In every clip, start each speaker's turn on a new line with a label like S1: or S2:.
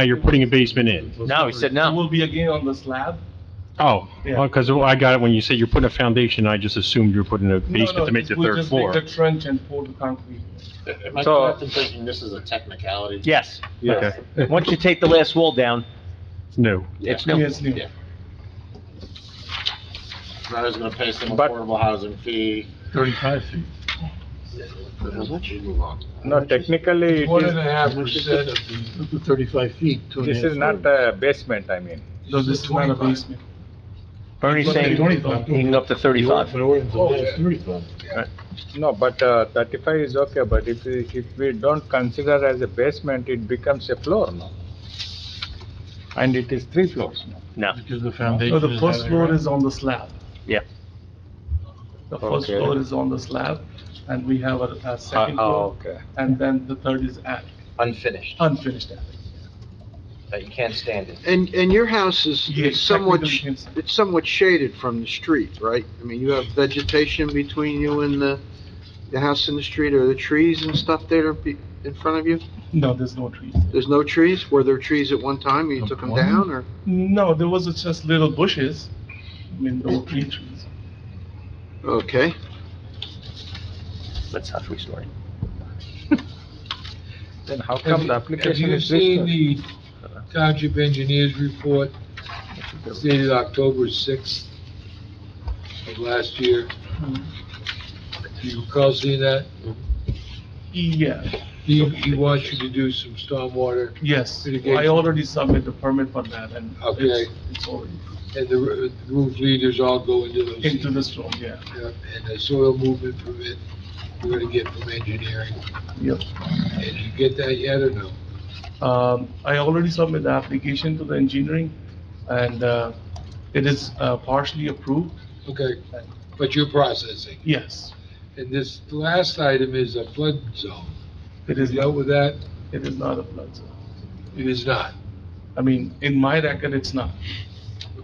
S1: Now you're putting a basement in.
S2: No, he said
S3: It
S2: no.
S3: will be again on the slab.
S1: Oh,
S3: Yeah.
S1: because I got it when you said you're putting a foundation, I just assumed you were putting a
S3: No, no,
S1: basement to make the
S3: we'll
S1: third
S3: just
S1: floor.
S3: dig the trench and pour the concrete.
S4: Am I
S2: So-
S4: correct in thinking this is a technicality?
S2: Yes.
S1: Okay,
S2: Once you take the last wall down,
S1: no.
S2: it's new.
S3: Yes, new.
S4: Yeah. Now he's gonna pay some
S2: But-
S4: affordable housing fee.
S5: Thirty-five feet.
S4: How much? You move on.
S6: No, technically, it
S7: One
S6: is,
S7: and a half percent of the,
S5: Up to Thirty-five feet, two and a
S6: this
S5: half.
S6: is not the basement, I mean.
S3: No, this is not a
S7: 25.
S3: basement.
S2: Bernie's saying he can go up to
S5: But
S2: 35.
S5: ordinance
S7: Oh,
S5: allows
S7: yeah.
S5: thirty-five.
S6: No, but uh, thirty-five is okay, but if, we- if we don't consider as a basement, it becomes a floor now. And it is three floors now.
S5: Because the
S3: No,
S5: foundation
S3: Oh, the
S5: is
S3: first
S5: not
S3: floor
S5: around.
S3: is on the slab.
S2: Yeah.
S3: The first
S6: Okay.
S3: floor is on the slab, and we have a, a second
S6: uh,
S3: floor,
S6: okay.
S3: and then the third is attic,
S8: unfinished,
S3: unfinished attic.
S8: that you can't stand it.
S9: And, and your house is
S3: Yeah,
S9: is somewhat,
S3: technically,
S9: sh-
S3: yes.
S9: it's somewhat shaded from the street, right? I mean, you have vegetation between you and the, the house in the street, or the trees and stuff there be- in front of you?
S3: No, there's no trees.
S9: There's no trees? Were there trees at one time, you took them down, or?
S3: No, there was just little bushes, I mean, no tree trees.
S9: Okay,
S2: That's not three-story.
S6: Then how
S7: Have
S6: come
S7: you-
S6: the
S7: have
S6: application
S7: you
S6: is this?
S7: seen
S6: long?
S7: the township engineer's report dated October sixth of last year? Do you recall seeing that?
S3: Yeah,
S7: He, he wants you to do some stormwater,
S3: yes, I
S7: Mitigation.
S3: already submitted the permit for that, and
S7: Okay.
S3: it's, it's already
S7: and the roo- roof leaders all go into those.
S3: into the storm, yeah.
S7: Yep, And the soil movement permit, we're gonna get from engineering.
S3: Yep.
S7: Did you get that yet or no?
S3: Um, I already submitted the application to the engineering, and, uh, it is uh, partially approved,
S7: Okay, but you're processing.
S3: yes.
S7: And this last item is a flood zone.
S3: It
S7: Is
S3: is,
S7: that
S3: it
S7: with that?
S3: is not a flood zone.
S7: It is not.
S3: I mean, in my record, it's not.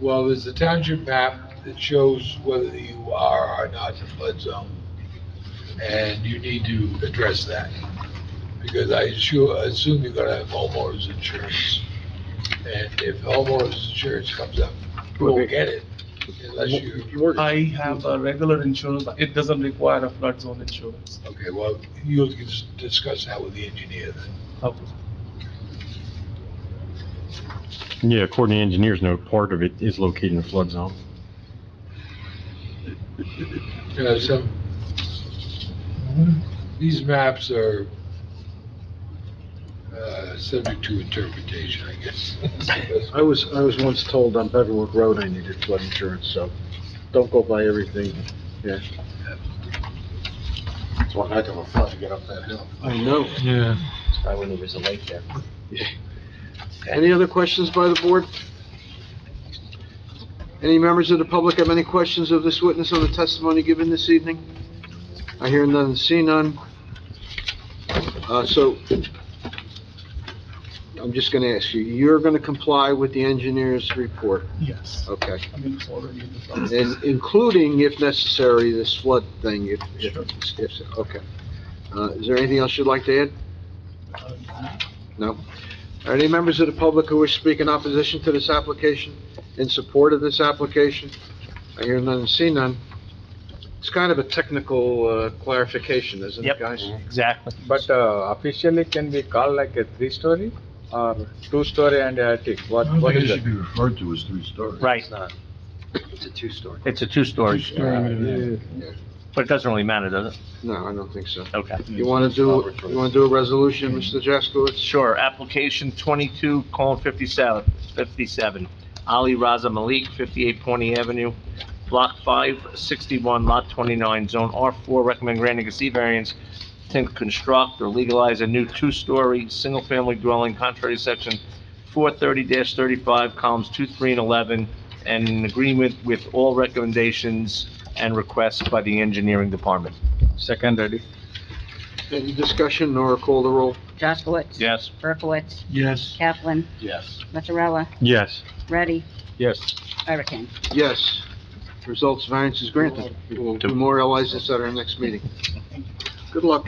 S7: Well, there's a township map that shows whether you are or not in a flood zone. And you need to address that, because I sure, assume you're gonna have homeowners insurance. And if homeowners insurance comes up, you won't get it unless you,
S3: I have a regular insurance, it doesn't require a flood zone insurance.
S7: okay, well, you'll dis- discuss that with the engineer then.
S3: Okay.
S1: Yeah, according to engineers, no part of it is located in a flood zone.
S7: Yeah, some, these maps are, uh, subject to interpretation, I guess.
S10: I was, I was once told on Beverwood Road I needed flood insurance, so don't go by everything.
S4: It's one heck of a flood to get up that hill.
S9: I know.
S5: Yeah.
S8: That's why when there was a lake there.
S9: Any other questions by the board? Any members of the public have any questions of this witness on the testimony given this evening? I hear none, and see none. Uh, so, I'm just gonna ask you, you're gonna comply with the engineer's report,
S3: Yes,
S9: okay?
S3: I mean, it's already in the flood zone.
S9: And including, if necessary, this flood thing, if, if,
S3: Sure.
S9: if, okay. Uh, is there anything else you'd like to add? No? Are any members of the public who wish to speak in opposition to this application, in support of this application? I hear none and see none. It's kind of a technical uh, clarification, isn't
S2: Yep.
S9: it, guys?
S2: Exactly.
S6: But
S9: uh,
S6: Officially, can be called like a three-story or two-story and attic?
S5: I
S6: What,
S5: don't
S6: what
S5: think it
S6: is
S5: should
S6: it?
S5: be referred to as three-story.
S2: Right.
S8: It's not, it's a two-story.
S2: It's a two-story, but it doesn't really matter, does it?
S9: No, I don't think so.
S2: Okay.
S9: You want to do, you want to do a resolution, Mr. Jaskowitz?
S2: Sure, application 22, colon 57, 57, Ali Raza Malik, 58 Pawnee Avenue, Block 561, Lot 29, Zone R4, recommend granting a C variance to construct or legalize a new two-story, single-family dwelling contrary to section 430-35, columns 2, 3, and 11, and in agreement with all recommendations and requests by the engineering department.
S6: Second, ready?
S9: Any discussion or call the roll?
S11: Jaskowitz.
S2: Yes?
S11: Berkowitz.
S5: Yes.
S11: Kaplan.
S4: Yes.
S11: Mazzarella.
S1: Yes.
S11: Ready.
S6: Yes.
S11: Hurricane.
S9: Yes. Results variance is granted. We'll memorialize this at our next meeting. Good luck.